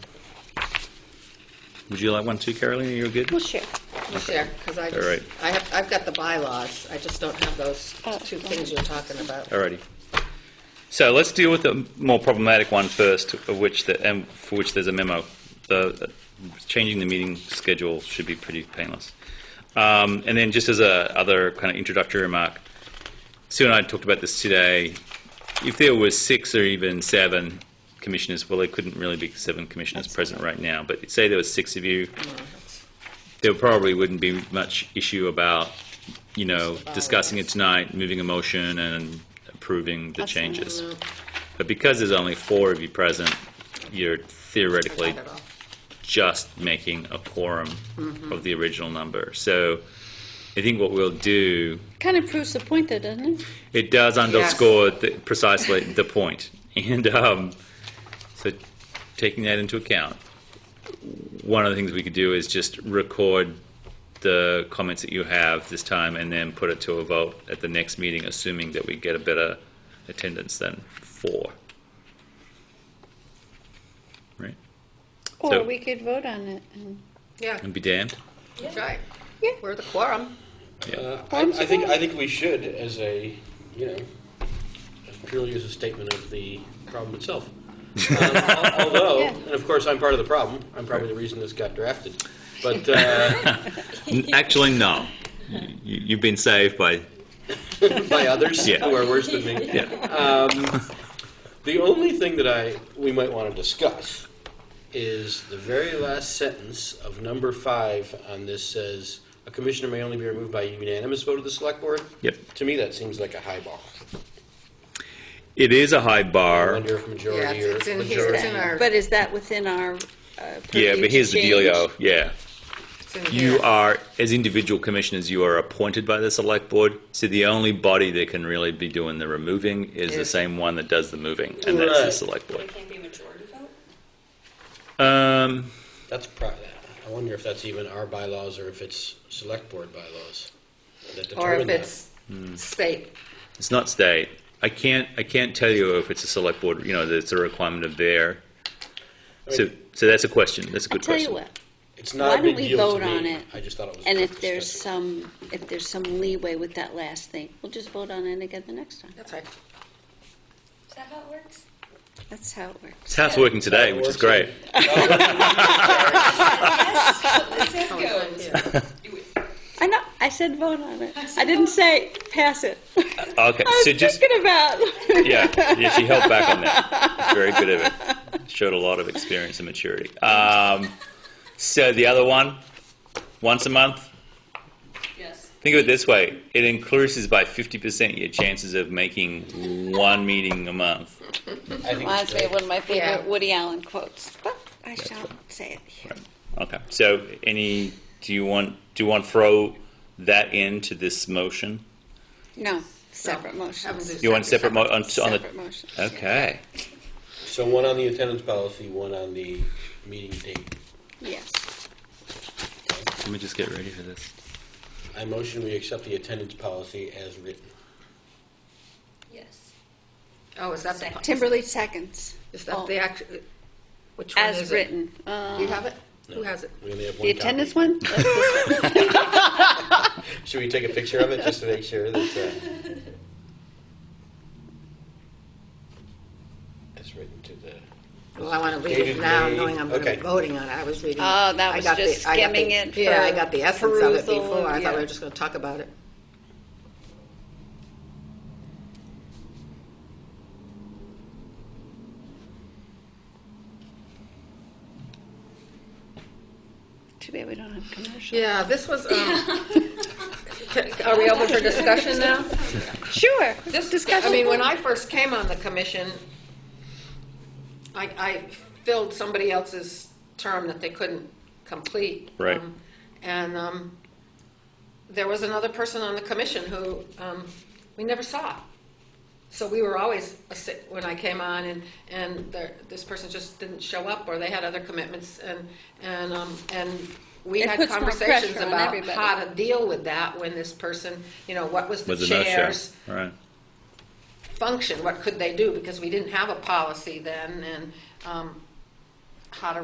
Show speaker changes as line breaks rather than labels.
Would you like one too, Carolina? You're good?
We'll share.
We'll share, because I
All right.
just, I have, I've got the bylaws, I just don't have those
Oh,
two things you're talking about.
Alrighty. So let's deal with the more problematic one first, of which the, and for which there's a memo. The, uh, changing the meeting schedule should be pretty painless. Um, and then just as a other kind of introductory remark, Sue and I talked about this today. If there were six or even seven commissioners, well, there couldn't really be seven commissioners present right now, but say there were six of you, there probably wouldn't be much issue about, you know, discussing it tonight, moving a motion and approving the
That's fine.
changes. But because there's only four of you present, you're theoretically
Not at all.
just making a quorum of the original number. So I think what we'll do,
Kind of proves the point though, doesn't it?
it does underscore the, precisely the point. And um, so taking that into account, one of the things we could do is just record the comments that you have this time and then put it to a vote at the next meeting, assuming that we get a better attendance than four. Right?
Or
So-
we could vote on it. and-
Yeah,
And be damned.
that's right.
Yeah.
We're the quorum.
Uh, I I think, I think we should as a, you know, purely as a statement of the problem itself. Um, al- Although,
Yeah.
and of course, I'm part of the problem. I'm probably the reason this got drafted. But, uh,
N- Actually, no. You, you've been saved by.
by others
Yeah.
who are worse than me.
Yeah.
The only thing that I, we might want to discuss is the very last sentence of number five on this says, "A commissioner may only be removed by unanimous vote of the select board."
Yep.
To me, that seems like a high bar.
It is a high
I
bar.
wonder if
Yeah,
majority or
it's it's in here, it's in
majority.
our,
But is that within our uh, purview
Yeah, but here's
to
the
change?
dealio. Yeah.
it's in
You
here.
are, as individual commissioners, you are appointed by the select board. So the only body that can really be doing the removing is the
Is-
same one that does the moving, and that's the
Right.
select board.
It can't be a majority vote?
Um,
That's probably, I wonder if that's even our bylaws or if it's select board bylaws that
Or
determine
if
that.
it's
Hmm.
state.
it's not state. I can't. I can't tell you if it's a select board. You know, that it's a requirement of their. So, so that's a question. That's a
I
good
tell
question.
you what,
It's
why
not a
don't
big
we
deal
vote
to
on
me.
it?
I just thought it was.
and
worth
if there's
discussing.
some, if there's some leeway with that last thing, we'll just vote on it again the next time.
That's right.
Is that how it works?
That's how it works.
It's house working today,
That
which is
works.
great.
Yes, this goes.
Yeah.
I know, I said vote on it. I didn't say pass it. I
Okay,
was
so just
thinking about.
yeah, yeah, she held back on that. Very good at it. Showed a lot of experience and maturity. Um, so the other one, once a month.
Yes.
Think of it this way: it increases by fifty percent your chances of making one meeting a month.
I think it's
Reminds me
great.
of one of my
Yeah.
favorite Woody Allen quotes, but I shall say it here.
Okay. So any? Do you want? Do you want to throw that into this motion?
No, separate motions.
Have 'em do
You want separate mo- on, on
Separate
the?
motions.
Okay.
So one on the attendance policy, one on the meeting date.
Yes.
Let me just get ready for this.
I motion we accept the attendance policy as written.
Yes.
Oh, is that the, po-
Timberly seconds.
is
Oh,
that the act, which one
As
is it?
written.
You
Uh,
have it? Who has it?
We only have one
The attendance
copy.
one? That's this one.
Should we take a picture of it just to make sure that uh, it's written to the?
Well, I want to read
Dated
it now,
May-
knowing I'm going to
okay.
be voting on it. I was reading.
Oh, that
I
was
got the-
just
I got the-
skimming it
Yeah, I
for
got the essence of it
perusal,
before. I thought we
yeah.
were just going to talk about it.
Too bad we don't have commercial.
Yeah, this was, um, are we open for discussion now?
Sure.
This discussion, I mean, when I first came on the commission, I, I filled somebody else's term that they couldn't complete.
Right.
Um, And, um, there was another person on the commission who, um, we never saw. So we were always, a si- when I came on, and, and there- this person just didn't show up, or they had other commitments, and, and, um, and we
It
had
puts more pressure
conversations
on
about
everybody.
how to deal with that when this person, you know, what was the
Was it no
chair's
show? All right.
function, what could they do? Because we didn't have a policy then, and um, how to